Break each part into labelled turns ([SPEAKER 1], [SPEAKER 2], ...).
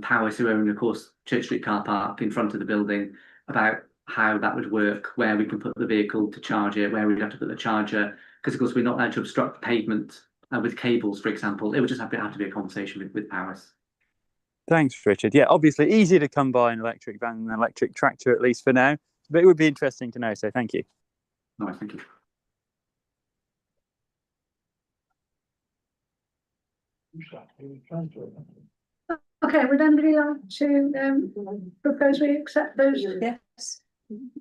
[SPEAKER 1] Powers, who own, of course, Church Street car park in front of the building, about how that would work, where we can put the vehicle to charge it, where we'd have to put the charger, because of course we're not allowed to obstruct the pavement uh, with cables, for example. It would just have to have to be a conversation with, with Powers.
[SPEAKER 2] Thanks, Richard. Yeah, obviously easier to come by an electric van than an electric tractor, at least for now. But it would be interesting to know. So thank you.
[SPEAKER 1] Nice, thank you.
[SPEAKER 3] Okay, would anybody like to um propose we accept those
[SPEAKER 4] Yes,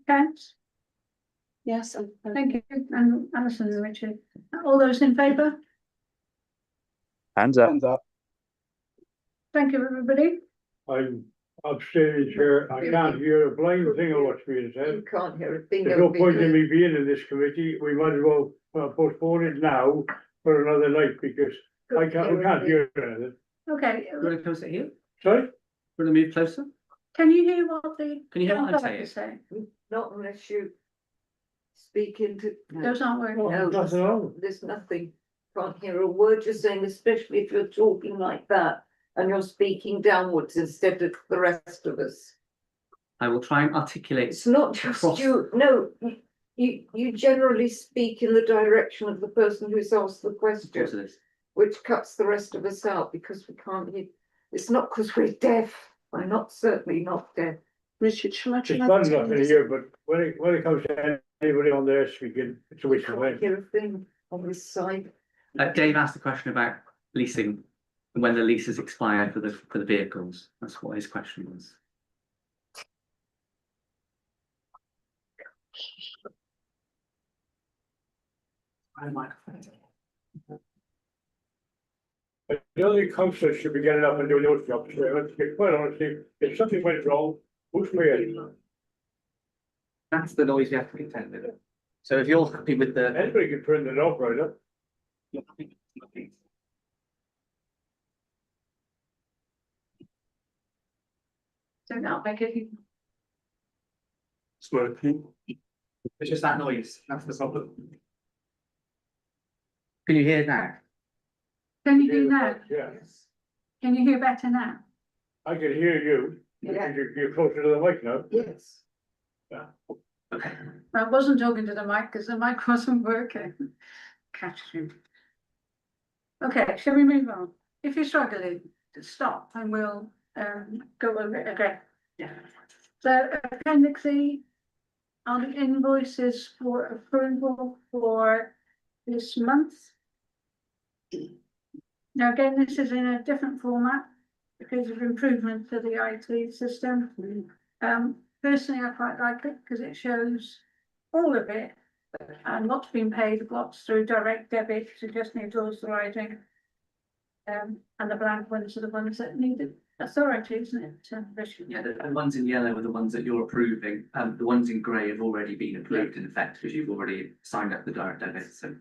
[SPEAKER 3] accounts?
[SPEAKER 4] yes. I'm- I'm-
[SPEAKER 3] Thank you, and Alison and Richard. All those in favour?
[SPEAKER 2] Hands up.
[SPEAKER 5] Hands up.
[SPEAKER 3] Thank you, everybody.
[SPEAKER 6] I'm upstairs here, I can't hear a blind thing of what's being said.
[SPEAKER 7] You can't hear a thing.
[SPEAKER 6] There's
[SPEAKER 7] over
[SPEAKER 6] no point in
[SPEAKER 7] here.
[SPEAKER 6] me being in this committee, we might as well uh, postpone it now for another night, because I can't, I can't hear anything.
[SPEAKER 3] Okay,
[SPEAKER 1] Do you want to close it here? Do
[SPEAKER 6] Sorry?
[SPEAKER 1] you want to move closer?
[SPEAKER 3] can you hear what the?
[SPEAKER 1] Can you hear what I'm
[SPEAKER 3] what
[SPEAKER 1] saying?
[SPEAKER 3] saying?
[SPEAKER 7] Not unless you speak into. no,
[SPEAKER 3] Those aren't working.
[SPEAKER 7] No.
[SPEAKER 6] Nothing on.
[SPEAKER 7] There's nothing, can't hear a word you're saying, especially if you're talking like that and you're speaking downwards instead of the rest of us.
[SPEAKER 1] I will try and articulate
[SPEAKER 7] It's not just
[SPEAKER 1] Cross.
[SPEAKER 7] you, no, you, you generally speak in the direction of the person who's asked the
[SPEAKER 1] Close to
[SPEAKER 7] question,
[SPEAKER 1] this.
[SPEAKER 7] which cuts the rest of us out because we can't hear. It's not because we're deaf, I'm not, certainly not deaf.
[SPEAKER 4] Richard, shall I?
[SPEAKER 6] It's
[SPEAKER 4] shall I
[SPEAKER 6] bad
[SPEAKER 4] tell
[SPEAKER 6] enough in
[SPEAKER 4] you-
[SPEAKER 6] here, but when it, when it comes to anybody on there speaking, it's a
[SPEAKER 7] We
[SPEAKER 6] waste of
[SPEAKER 7] can't
[SPEAKER 6] time.
[SPEAKER 7] hear a thing on this side.
[SPEAKER 1] Uh, Dave asked a question about leasing, when the leases expire for the, for the vehicles. That's what his question was.
[SPEAKER 6] I don't think councillors should be getting up and doing those jobs, so let's be quite honestly, if something went wrong, who's paying?
[SPEAKER 8] That's the noise you have to contend with. So if you're happy with the.
[SPEAKER 6] Anybody can turn it off, right up.
[SPEAKER 8] you're happy with the-
[SPEAKER 3] Don't know, make it.
[SPEAKER 8] It's just that noise, that's the problem. Can you hear now?
[SPEAKER 3] Can you hear now?
[SPEAKER 6] Yeah,
[SPEAKER 3] Can you hear better now?
[SPEAKER 6] I can hear you,
[SPEAKER 7] Yeah.
[SPEAKER 6] you're, you're closer to the mic now.
[SPEAKER 7] Yes.
[SPEAKER 8] Okay.
[SPEAKER 3] I wasn't talking to the mic because the mic wasn't working. Catching. Okay, shall we move on? If you're struggling, stop and we'll um go over it again.
[SPEAKER 8] Yeah.
[SPEAKER 3] So appendix E are the invoices for approval for this month. Now, again, this is in a different format because of improvement to the IT system. Um, personally, I quite like it because it shows all of it and what's been paid, what's through direct debit, so just need authorizing. Um, and the blank ones are the ones that needed authority, isn't it? to issue?
[SPEAKER 8] Yeah, the, the ones in yellow are the ones that you're approving, um, the ones in grey have already been approved in effect, because you've already signed up the direct debit, so.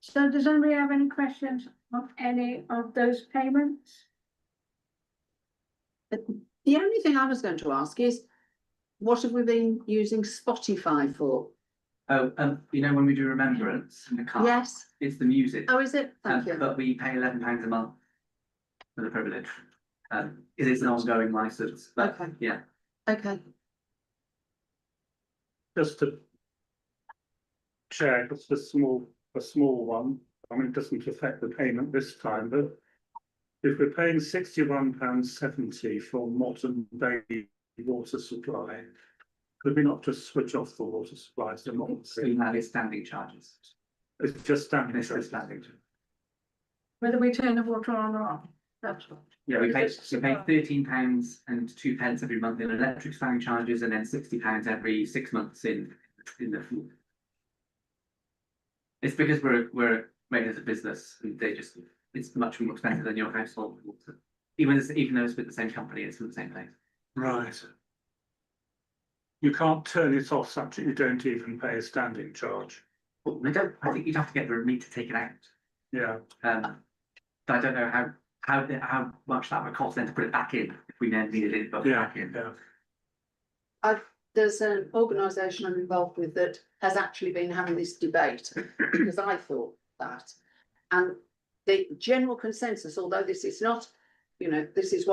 [SPEAKER 3] So does anybody have any questions on any of those payments?
[SPEAKER 4] The only thing I was going to ask is, what have we been using Spotify for?
[SPEAKER 8] Oh, um, you know, when we do remembrance in the car.
[SPEAKER 4] Yes,
[SPEAKER 8] It's the music.
[SPEAKER 4] oh, is it? Thank
[SPEAKER 8] Um,
[SPEAKER 4] you.
[SPEAKER 8] But we pay eleven pounds a month for the privilege. Um, it is an ongoing license, but
[SPEAKER 4] Okay.
[SPEAKER 8] yeah.
[SPEAKER 4] Okay,
[SPEAKER 9] just to check, it's a small, a small one. I mean, it doesn't affect the payment this time, but if we're paying sixty-one pounds seventy for modern day water supply, could we not just switch off the water supply to modern?
[SPEAKER 8] We have its standing charges.
[SPEAKER 9] It's just standing.
[SPEAKER 8] It's just standing. charge.
[SPEAKER 3] Whether we turn the water on or off, that's what.
[SPEAKER 8] Yeah, we pay,
[SPEAKER 3] It's
[SPEAKER 8] we pay thirteen pounds and two pence every month in electric standing charges and then sixty pounds every six months in, in the. fuel. It's because we're, we're made as a business, and they just, it's much more expensive than your household water. Even, as- even though it's with the same company, it's from the same place.
[SPEAKER 9] Right. You can't turn it off such that you don't even pay a standing charge.
[SPEAKER 8] Well, they don't, I think you'd have to get the remit to take it out.
[SPEAKER 9] Yeah,
[SPEAKER 8] Um, but I don't know how, how, how much that would cost then to put it back in, if we then needed it, but
[SPEAKER 9] yeah,
[SPEAKER 8] back in.
[SPEAKER 9] yeah.
[SPEAKER 4] there's an organisation I'm involved with that has actually been having this debate, because I thought that. And the general consensus, although this is not you know, this is what